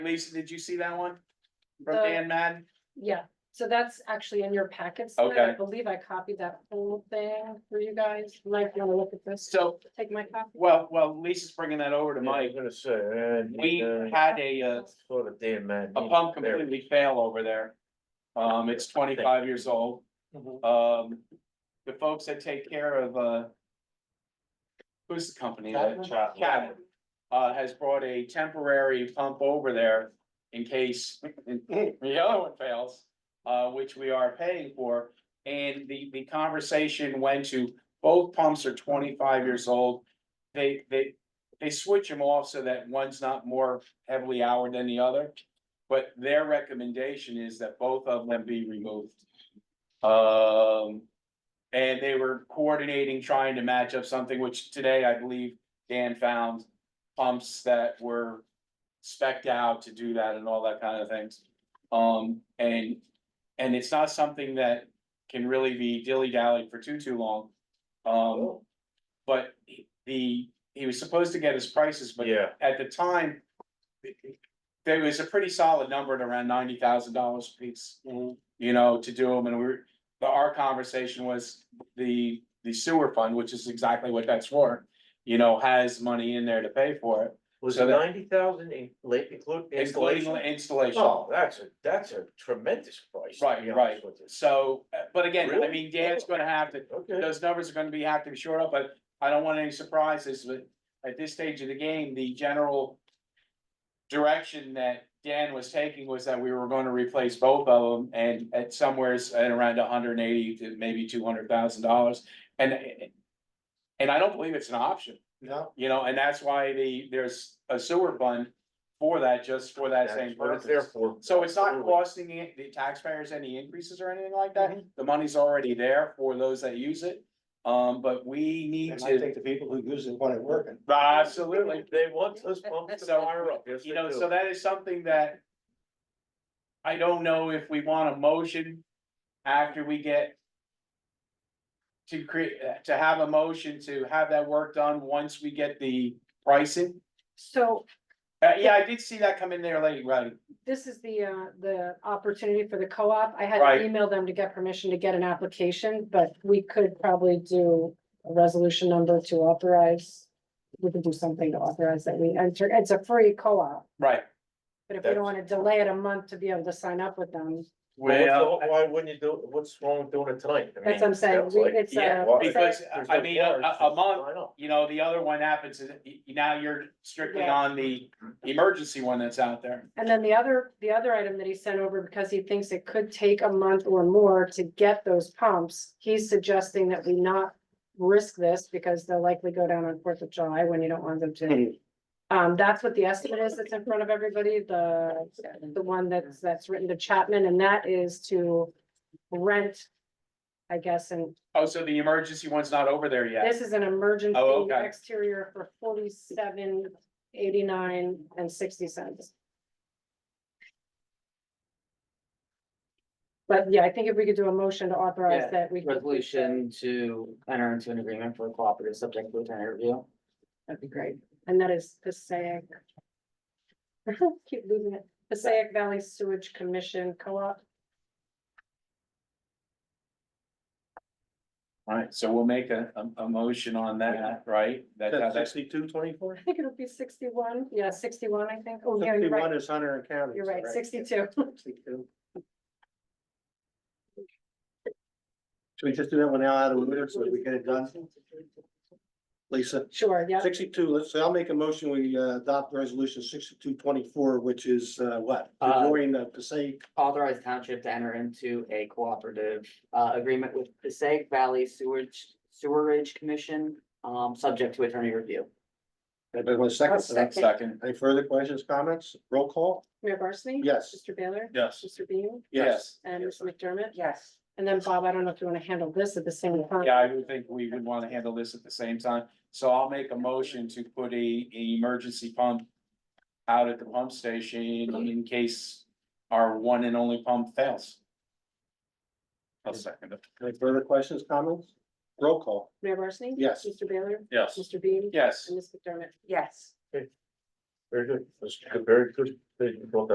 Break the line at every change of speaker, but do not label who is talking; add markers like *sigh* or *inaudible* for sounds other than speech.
Lisa, did you see that one?
The-
Brooke Ann Madden?
Yeah, so that's actually in your packets. now. I
Okay.
believe I copied that whole thing for you guys. You Might wanna look at this,
So,
take my copy.
well, well, Lisa's bringing that over to
I
Mike.
was gonna say, uh,
We had a, uh,
Sort of damn man.
a pump completely fail over there. Um, it's twenty-five years old.
Mm-hmm.
Mhm.
Um, the folks that take care of, uh, who's the company? that- Chapman, uh, has brought a temporary pump over there in case *laughs* the other one fails, uh, which we are paying for. And the, the conversation went to, both pumps are twenty-five years old. They, they, they switch them off so that one's not more heavily houred than the other. But their recommendation is that both of them be removed. Um, and they were coordinating, trying to match up something, which today I believe Dan found pumps that were spec'd out to do that and all that kind of things. Um, and, and it's not something that can really be dilly-dallied for too, too long. Um, but he- the, he was supposed to get his prices, but
Yeah,
at the time, there was a pretty solid number at around ninety thousand dollars a piece,
Mm-hmm.
you know, to do them, and we were, the, our conversation was the, the sewer fund, which is exactly what that's for, you know, has money in there to pay for it,
was
So
it
that-
ninety thousand in, late include
including
installation?
the installation.
Oh, that's a, that's a tremendous price. to
Right,
be
right.
honest with you.
So, uh, but again, I
Really?
mean, Dan's gonna have to,
Okay,
those numbers are gonna be, have to be shored up, but I don't want any surprises, but at this stage of the game, the general direction that Dan was taking was that we were gonna replace both of them and at somewheres at around hundred and eighty to maybe two hundred thousand dollars. And, and I don't believe it's an option,
no,
you know, and that's why the, there's a sewer fund for that, just for that
that's
same
what it's
purpose.
there for.
So it's not
Absolutely.
costing the- the taxpayers any increases or anything like that,
Mm-hmm.
the money's already there for those that use it. Um, but we need
And I
to,
think the people who use it want it working.
absolutely,
They want those pumps to
So,
fire up, yes,
you
they
know,
do.
so that is something that. I don't know if we want a motion after we get. To create, to have a motion to have that work done once we get the pricing,
So
uh, yeah, I did see that come in there late, right?
this is the, uh, the opportunity for the co-op. I had
Right.
to email them to get permission to get an application, but we could probably do a resolution number to authorize. We could do something to authorize that we enter. It's a free co-op,
Right.
but if we don't
That's-
wanna delay it a month to be able to sign up with them,
Well, what's the- why wouldn't you do, what's wrong with doing it tonight? I
That's
mean,
what I'm saying.
sounds
We-
like-
it's,
Yeah,
uh,
why-
Because,
there's
I
no
mean, a-
bars,
a- a month-
why not?
you know, the other one happens is, y- y- now you're strictly
Yeah.
on the emergency one that's out there.
And then the other, the other item that he sent over, because he thinks it could take a month or more to get those pumps, he's suggesting that we not risk this because they'll likely go down on Fourth of July when you don't want them to. Um, that's what the estimate is that's in front of everybody, the, the one that's, that's written to Chapman, and that is to rent, I guess, and
Oh, so the emergency one's not over there yet?
this is an emergency
Oh, okay.
exterior for forty-seven, eighty-nine, and sixty cents. But yeah, I think if we could do a motion to authorize
Yeah,
that, we. could-
resolution to enter into an agreement for a cooperative subject to a tenant review.
That'd be great, and that is Passaic. *laughs* Keep losing it, Passaic Valley Sewage Commission Co-op,
Alright, so we'll make a, a, a motion on that, right? That's how that's,
Sixty-two twenty-four?
I think it'll be sixty-one, yeah, sixty-one, I think, oh, yeah, you're
Sixty-one
right,
is Hunter and County.
you're right, sixty-two. *laughs*
Sixty-two. Should we just do that one now out of order so that we get it done? Lisa,
Sure, yeah,
sixty-two, let's, I'll make a motion, we uh, adopt resolution sixty-two twenty-four, which is uh, what?
Uh,
During the Passaic,
Authorize township to enter into a cooperative uh agreement with Passaic Valley Sewerage Sewerage Commission, um, subject to attorney review.
anybody want a second? for that?
second,
Any further questions, comments? Roll call?
Mayor Barsney?
Yes.
Mr. Baylor?
Yes.
Mr. Beam?
yes.
And Mr. McDermott?
Yes.
And then Bob, I don't know if you wanna handle this at the same time.
Yeah, I would think we would wanna handle this at the same time, so I'll make a motion to put a, a emergency pump. Out at the pump station in case our one and only pump fails. I'll second it.
Any further questions, comments? Roll call?
Mayor Barsney?
Yes.
Mr. Baylor?
Yes.
Mr. Beam?
Yes,
And Ms. McDermott?
Yes.
Very good, that's a very good thing, well done.